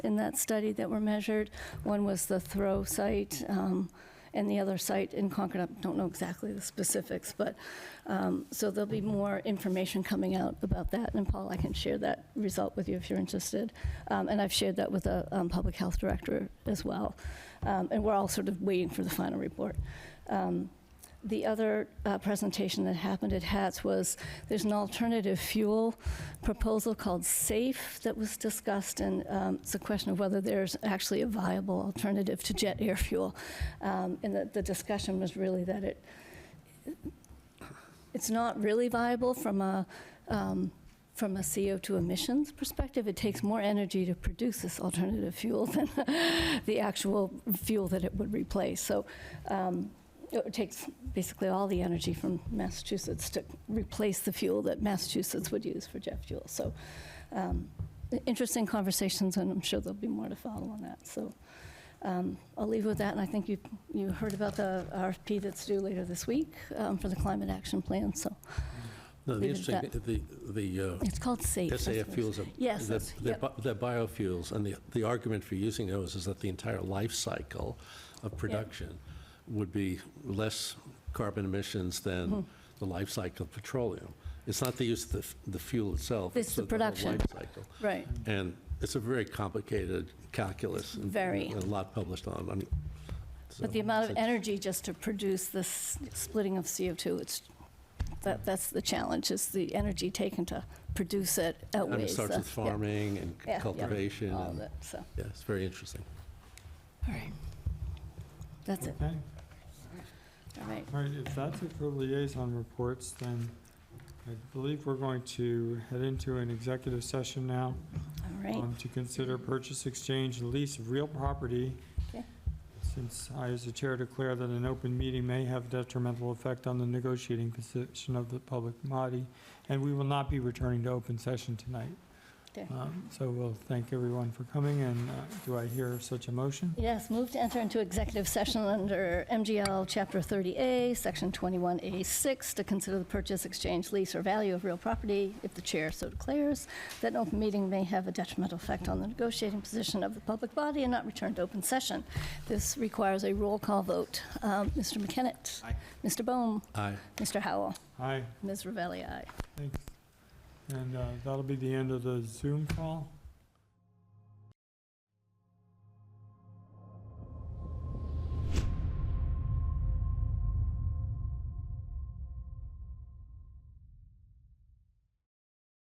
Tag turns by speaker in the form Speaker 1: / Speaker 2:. Speaker 1: in that study that were measured. One was the Thoreau site, um, and the other site in Concord. I don't know exactly the specifics, but, um, so there'll be more information coming out about that. And Paul, I can share that result with you if you're interested. Um, And I've shared that with the um, Public Health Director as well. Um, And we're all sort of waiting for the final report. Um, the other uh, presentation that happened at HATS was there's an alternative fuel proposal called SAFE that was discussed, and um, it's a question of whether there's actually a viable alternative to jet air fuel. Um, And the, the discussion was really that it, it's not really viable from a, um, from a CO2 emissions perspective. It takes more energy to produce this alternative fuel than the actual fuel that it would replace. So um, it takes basically all the energy from Massachusetts to replace the fuel that Massachusetts would use for jet fuel. So um, interesting conversations, and I'm sure there'll be more to follow on that. So um, I'll leave with that, and I think you, you heard about the RFP that's due later this week um, for the climate action plan, so
Speaker 2: No, the
Speaker 1: Leave it
Speaker 2: interesting,
Speaker 1: at
Speaker 2: the, the uh,
Speaker 1: it's called SAFE. that's
Speaker 2: SAF
Speaker 1: what it
Speaker 2: fuels are.
Speaker 1: Yes,
Speaker 2: they're-
Speaker 1: that's-
Speaker 2: They're
Speaker 1: yep.
Speaker 2: bi- they're biofuels, and the, the argument for using those is that the entire life cycle of production would be less carbon emissions than
Speaker 1: Mm-hmm.
Speaker 2: the life cycle of petroleum. It's not the use of the, f- the fuel itself.
Speaker 1: It's the
Speaker 2: whole
Speaker 1: production.
Speaker 2: life cycle.
Speaker 1: is. Right,
Speaker 2: And it's a very complicated calculus. and-
Speaker 1: Very.
Speaker 2: and A lot published on, on. so
Speaker 1: but the amount of
Speaker 2: it's a-
Speaker 1: energy just to produce this splitting of CO2, it's, that, that's the challenge, is the energy taken to produce it
Speaker 2: I mean, It
Speaker 1: outweighs the.
Speaker 2: starts with
Speaker 1: uh, yeah,
Speaker 2: farming
Speaker 1: yeah, yeah,
Speaker 2: and cultivation.
Speaker 1: All
Speaker 2: and-
Speaker 1: of it, so, all
Speaker 2: Yeah, it's very interesting.
Speaker 1: right. That's it,
Speaker 3: Okay,
Speaker 1: all right.
Speaker 3: all right, if that's it for liaison reports, then I believe we're going to head into an executive session now
Speaker 1: All right,
Speaker 3: um, to consider purchase, exchange, and lease of real property.
Speaker 1: Okay.
Speaker 3: Since I, as the chair, declare that an open meeting may have detrimental effect on the negotiating position of the public body, and we will not be returning to open session tonight.
Speaker 1: Okay.
Speaker 3: Um, So we'll thank everyone for coming, and uh, do I hear such a motion?
Speaker 1: yes, move to enter into executive session under MGL Chapter 30A, Section 21A6, to consider the purchase, exchange, lease, or value of real property, if the chair so declares, that an open meeting may have a detrimental effect on the negotiating position of the public body and not return to open session. This requires a roll call vote. Um, Mr. McKennett?
Speaker 3: Aye.
Speaker 1: Mr. Bohm?
Speaker 2: Aye.
Speaker 1: Mr. Howell?
Speaker 3: Aye.
Speaker 1: Ms. Ravelli, aye.
Speaker 3: Thanks. And uh, that'll be the end of the Zoom call.